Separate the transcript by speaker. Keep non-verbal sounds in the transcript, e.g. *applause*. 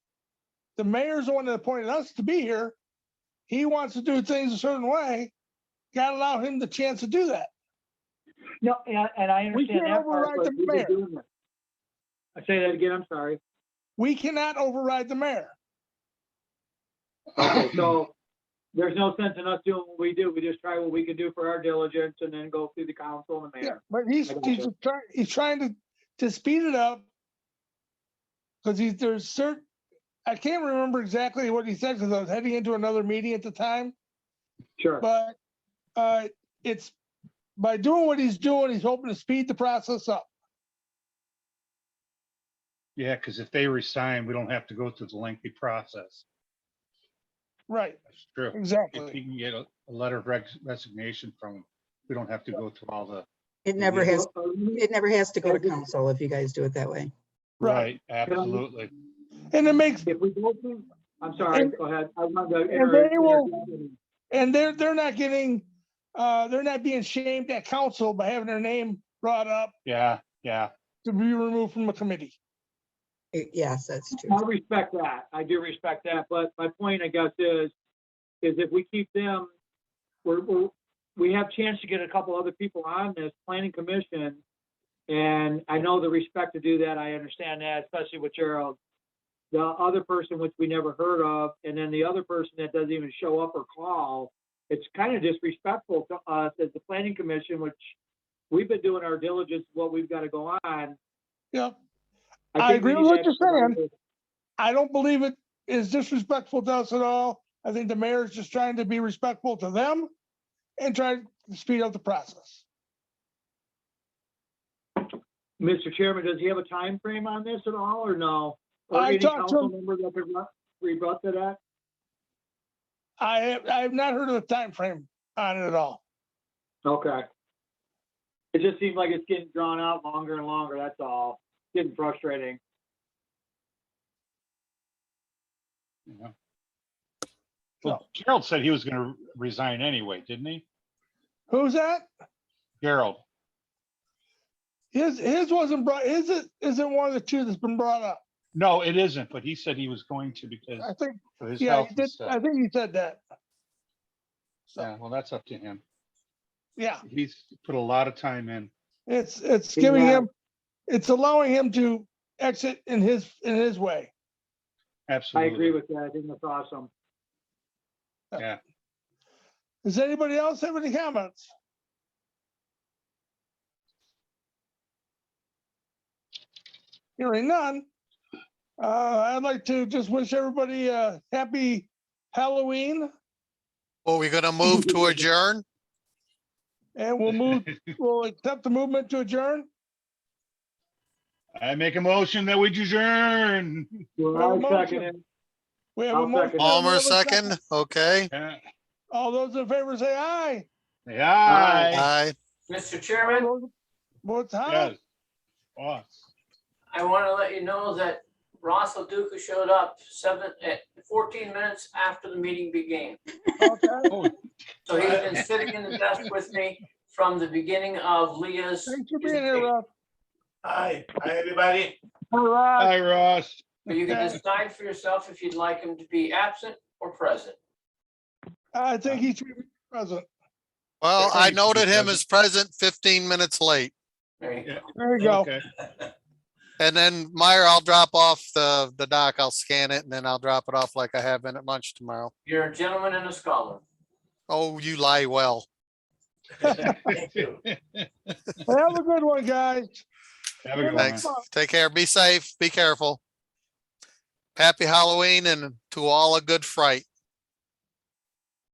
Speaker 1: The mayor's the one that appointed us to be here. He wants to do things a certain way. Gotta allow him the chance to do that.
Speaker 2: No, and, and I
Speaker 1: We
Speaker 2: understand
Speaker 1: can't
Speaker 2: that part,
Speaker 1: override
Speaker 2: but
Speaker 1: the
Speaker 2: we've
Speaker 1: mayor.
Speaker 2: been doing that. I say that again, I'm
Speaker 1: *laughs*
Speaker 2: sorry.
Speaker 1: We cannot override the mayor.
Speaker 2: Okay, so there's no sense in us doing what we do. We just try what we can do for our diligence and then go through the council and the
Speaker 1: Yeah,
Speaker 2: mayor.
Speaker 1: but he's,
Speaker 2: I got
Speaker 1: he's trying, he's trying to, to speed it up. Cause he's, there's certain, I can't remember exactly what he said, cause I was heading into another meeting at the time,
Speaker 2: Sure.
Speaker 1: but, uh, it's, by doing what he's doing, he's hoping to speed the process up.
Speaker 3: Yeah, because if they resign, we don't have to go through the lengthy process.
Speaker 1: Right,
Speaker 3: That's true. If
Speaker 1: exactly.
Speaker 3: you can get a, a letter of res- resignation from, 'em, we don't have to go through all the.
Speaker 4: It never
Speaker 3: Yeah.
Speaker 4: has, it never has to go to
Speaker 2: Okay.
Speaker 4: council if you guys do it that way.
Speaker 1: Right.
Speaker 3: Absolutely.
Speaker 1: And it makes,
Speaker 2: If we go through, I'm sorry,
Speaker 1: And-
Speaker 2: go ahead. I wanted to.
Speaker 1: and they will-
Speaker 2: interject.
Speaker 1: and they're, they're not getting, uh, they're not being shamed at council by having their name brought up
Speaker 3: Yeah, yeah.
Speaker 1: to be removed from a committee.
Speaker 4: It- Yes, that's true.
Speaker 2: I respect that. I do respect that, but my point, I guess, is, is if we keep them, we're, we're, we have chance to get a couple other people on this planning commission. And I know the respect to do that. I understand that, especially with Gerald. The other person, which we never heard of, and then the other person that doesn't even show up or call, it's kind of disrespectful to us as the planning commission, which we've been doing our diligence, what we've got to go on.
Speaker 1: Yep. I
Speaker 2: think we
Speaker 1: agree
Speaker 2: need
Speaker 1: with what
Speaker 2: to
Speaker 1: you're saying.
Speaker 2: actually-
Speaker 1: I don't believe it is disrespectful to us at all. I think the mayor is just trying to be respectful to them and try to speed up the process.
Speaker 2: Mr. Chairman, does he have a time frame on this at all, or no? Or
Speaker 1: I
Speaker 2: any
Speaker 1: talked to
Speaker 2: council member that could ru- rebut to that?
Speaker 1: I, I have not heard of a time frame on it at all.
Speaker 2: Okay. It just seems like it's getting drawn out longer and longer, that's all. Getting frustrating.
Speaker 3: you know. Well, Gerald said he was gonna resign anyway, didn't he?
Speaker 1: Who's that?
Speaker 3: Gerald,
Speaker 1: His, his wasn't brought, his is- isn't one of the two that's been brought up.
Speaker 3: no, it isn't, but he said he was going to because
Speaker 1: I think,
Speaker 3: of his
Speaker 1: yeah, he
Speaker 3: health and
Speaker 1: did, I
Speaker 3: stuff.
Speaker 1: think he said that.
Speaker 3: Yeah, well, that's up to him.
Speaker 1: Yeah,
Speaker 3: He's put a lot of time in.
Speaker 1: it's, it's
Speaker 2: He
Speaker 1: giving
Speaker 2: lied.
Speaker 1: him, it's allowing him to exit in his, in his way.
Speaker 2: I
Speaker 3: Absolutely.
Speaker 2: agree with that, I think that's awesome.
Speaker 1: Does anybody else have any comments? Hearing none. Uh, I'd like to just wish everybody a happy Halloween
Speaker 5: Well, we're gonna move to adjourn?
Speaker 1: and we'll
Speaker 3: *laughs*
Speaker 1: move, we'll accept the movement to adjourn.
Speaker 3: I make a motion that
Speaker 1: *laughs*
Speaker 3: we adjourn.
Speaker 2: Well,
Speaker 1: Well,
Speaker 2: I second it.
Speaker 1: We have a
Speaker 2: I'll
Speaker 1: motion. by
Speaker 2: second.
Speaker 5: Palmer
Speaker 1: Melvin
Speaker 5: second, okay?
Speaker 3: Yeah.
Speaker 1: All those in favor say aye.
Speaker 3: Yeah.
Speaker 5: Aye.
Speaker 6: Mr. Chairman,
Speaker 1: Votes aye.
Speaker 3: Yes. Awesome.
Speaker 6: I want to let you know that Ross Leduca showed up seven, at fourteen minutes after the meeting began.
Speaker 1: Okay,
Speaker 3: Oh,
Speaker 6: So he's been sitting in the desk with me from the beginning of Leah's.
Speaker 1: Thanks for being here, Rob.
Speaker 7: Hi, hi, everybody.
Speaker 3: Hi, Ross.
Speaker 6: But you can decide for yourself if you'd like him to be absent or present.
Speaker 1: I think he should be present.
Speaker 5: Well, I
Speaker 3: Thank you,
Speaker 5: noted him
Speaker 3: Kevin.
Speaker 5: as present fifteen minutes late.
Speaker 6: There you go.
Speaker 1: There you go.
Speaker 3: *laughs* Okay.
Speaker 5: And then Meyer, I'll drop off the, the doc. I'll scan it and then I'll drop it off like I have been at lunch tomorrow.
Speaker 6: You're a gentleman and a scholar.
Speaker 5: Oh, you lie well.
Speaker 7: Thank you.
Speaker 1: Have a good one, guys.
Speaker 3: Have a good one. man.
Speaker 5: Thanks. Take care. Be safe. Be careful. Happy Halloween and to all a good fright.